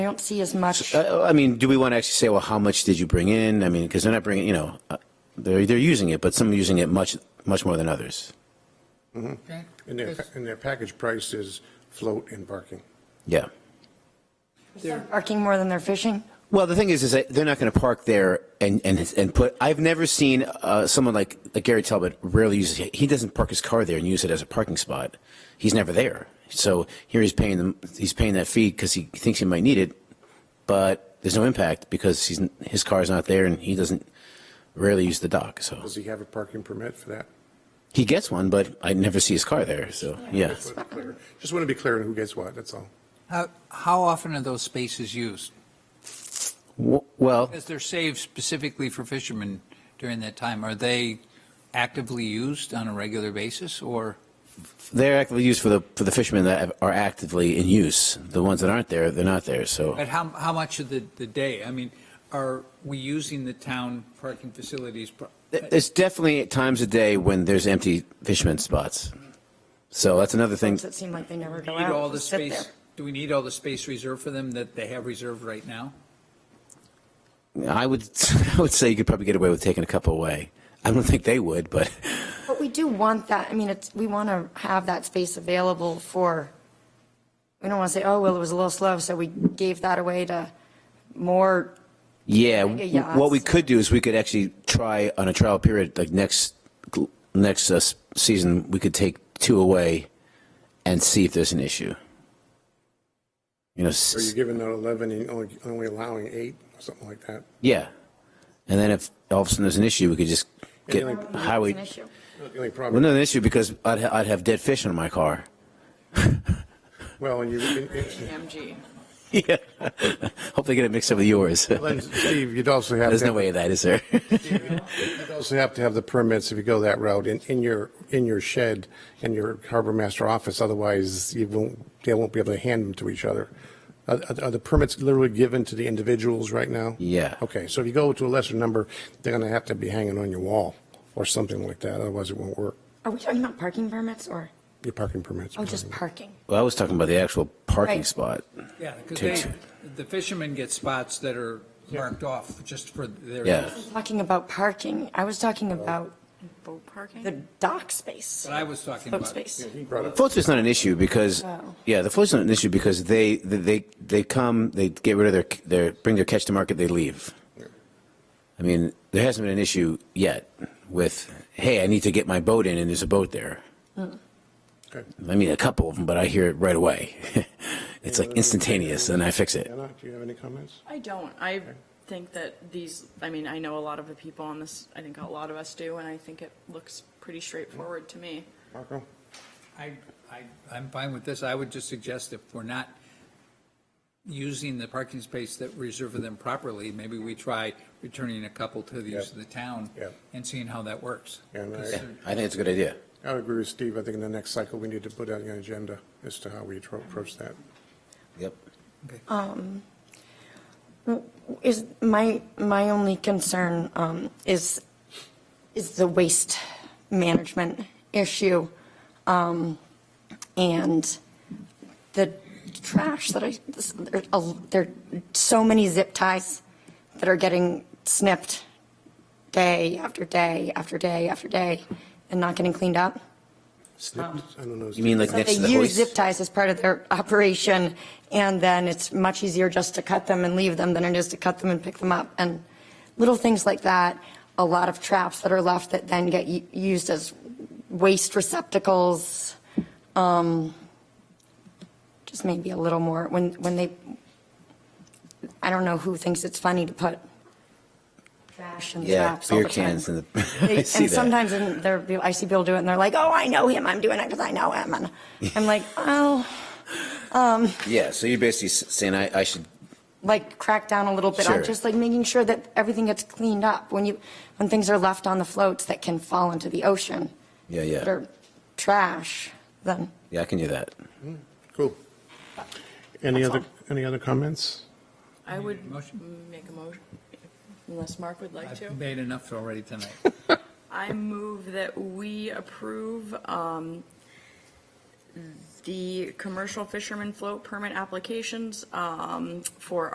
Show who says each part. Speaker 1: I don't see as much.
Speaker 2: Uh, I mean, do we want to actually say, well, how much did you bring in? I mean, because they're not bringing, you know, uh, they're, they're using it, but some are using it much, much more than others.
Speaker 3: Okay.
Speaker 4: And their,
Speaker 3: Because-
Speaker 4: and their package price is float and parking.
Speaker 2: Yeah.
Speaker 1: Parking more than they're fishing?
Speaker 2: Well, the thing is, is that they're not going to park there and, and, and put, I've never seen uh, someone like, like Gary Talbot rarely uses, he doesn't park his car there and use it as a parking spot. He's never there. So here he's paying them, he's paying that fee because he thinks he might need it, but there's no impact because he's, his car's not there and he doesn't rarely use the dock, so.
Speaker 4: Does he have a parking permit for that?
Speaker 2: He gets one, but I never see his car there, so, yeah.
Speaker 4: Just want to be clear on who gets what, that's all.
Speaker 3: How, how often are those spaces used?
Speaker 2: W- Well,
Speaker 3: As they're saved specifically for fishermen during that time, are they actively used on a regular basis or?
Speaker 2: they're actively used for the, for the fishermen that have- are actively in use. The ones that aren't there, they're not there, so.
Speaker 3: But how, how much of the, the day? I mean, are we using the town parking facilities? pro-
Speaker 2: There's definitely times a day when there's empty fishermen spots. So that's another thing.
Speaker 1: Does it seem like they never
Speaker 3: Do
Speaker 1: go
Speaker 3: we need all
Speaker 1: out,
Speaker 3: the
Speaker 1: just sit there?
Speaker 3: space, do we need all the space reserved for them that they have reserved right now?
Speaker 2: I would, I would say you could probably get away with taking a couple away. I don't think they would, but
Speaker 1: But we do want that, I mean, it's, we want to have that space available for, we don't want to say, oh, well, it was a little slow, so we gave that away to more,
Speaker 2: yeah,
Speaker 1: yachts.
Speaker 2: what we could do is we could actually try on a trial period, like next, next uh, s- season, we could take two away and see if there's an issue. You know, s-
Speaker 4: Are you giving out 11 and only, only allowing eight, something like that?
Speaker 2: yeah. And then if all of a sudden there's an issue, we could just get
Speaker 4: Yeah, like-
Speaker 2: highway.
Speaker 1: an issue.
Speaker 4: The only
Speaker 2: Well,
Speaker 4: problem,
Speaker 2: no, an issue because I'd, ha- I'd have dead fish on my car.
Speaker 4: well, and you, and- and-
Speaker 5: MG.
Speaker 2: yeah. Hope they get it mixed up with yours.
Speaker 4: Len, Steve, you'd also have.
Speaker 2: There's
Speaker 4: to-
Speaker 2: no way of that, is there?
Speaker 4: You'd also have to have the permits if you go that route in, in your, in your shed, in your harbor master office, otherwise you won't, they won't be able to hand them to each other. Are, are- are the permits literally given to the individuals right now?
Speaker 2: Yeah.
Speaker 4: Okay, so if you go to a lesser number, they're gonna have to be hanging on your wall or something like that, otherwise it won't work,
Speaker 1: Are we talking about parking permits or,
Speaker 4: your parking permits.
Speaker 1: oh, just parking?
Speaker 2: well, I was talking about the actual parking
Speaker 1: Right.
Speaker 2: spot.
Speaker 3: Yeah, because
Speaker 2: Takes-
Speaker 3: they, the fishermen get spots that are marked off just for their.
Speaker 2: Yeah.
Speaker 1: Talking about parking, I was
Speaker 3: Oh.
Speaker 1: talking about
Speaker 5: Boat parking?
Speaker 1: the dock space,
Speaker 3: But I was talking
Speaker 1: boat
Speaker 3: about.
Speaker 1: space.
Speaker 2: Floats is not an issue because,
Speaker 1: Oh.
Speaker 2: yeah, the floats not an issue because they, they, they, they come, they get rid of their, their, bring their catch to market, they leave. I mean, there hasn't been an issue yet with, hey, I need to get my boat in and there's a boat there.
Speaker 4: Okay.
Speaker 2: I mean, a couple of them, but I hear it right away. it's like instantaneous and I fix it.
Speaker 4: Anna, do you have any comments?
Speaker 5: I don't. I think that these, I mean, I know a lot of the people on this, I think a lot of us do, and I think it looks pretty straightforward to me.
Speaker 4: Marco?
Speaker 3: I, I, I'm fine with this. I would just suggest if we're not using the parking space that we reserve for them properly, maybe we try returning a couple to the use of the town
Speaker 4: Yeah.
Speaker 3: and seeing how that works.
Speaker 4: Yeah, no, I-
Speaker 3: 'Cause they're-
Speaker 2: I think it's a good idea.
Speaker 4: I would agree with Steve, I think in the next cycle, we need to put out an agenda as to how we appro- approach that.
Speaker 2: Yep.
Speaker 5: Um,
Speaker 1: Is, my, my only concern um, is, is the waste management issue um, and the trash that I, this- there are- there are so many zip ties that are getting snipped day after day after day after day and not getting cleaned up.
Speaker 4: Snipped, I don't know.
Speaker 2: You mean like
Speaker 1: So
Speaker 2: next to the
Speaker 1: They use
Speaker 2: hoist?
Speaker 1: zip ties as part of their operation, and then it's much easier just to cut them and leave them than it is to cut them and pick them up. And little things like that, a lot of traps that are left that then get u- used as waste receptacles. um, Just maybe a little more, when, when they, I don't know who thinks it's funny to put trash and
Speaker 2: Yeah,
Speaker 1: traps all
Speaker 2: beer
Speaker 1: the time.
Speaker 2: cans and the. I
Speaker 1: They-
Speaker 2: see
Speaker 1: And
Speaker 2: that.
Speaker 1: sometimes in there, I see people do it and they're like, oh, I know him. I'm doing it because I know him. And I'm like, oh,
Speaker 2: Yeah, so you're basically s- saying I, I should,
Speaker 1: like crack down a little bit
Speaker 2: Sure.
Speaker 1: on just like making sure that everything gets cleaned up when you, when things are left on the floats that can fall into the ocean.
Speaker 2: Yeah, yeah.
Speaker 1: That are trash, then.
Speaker 2: yeah, I can do that.
Speaker 4: Cool. Any
Speaker 1: That's
Speaker 4: other,
Speaker 1: all.
Speaker 4: any other comments?
Speaker 5: I would
Speaker 3: Motion?
Speaker 5: make a motion, unless Mark would like to.
Speaker 3: I've made enough already tonight.
Speaker 5: I move that we approve um, the commercial fisherman float permit applications um, for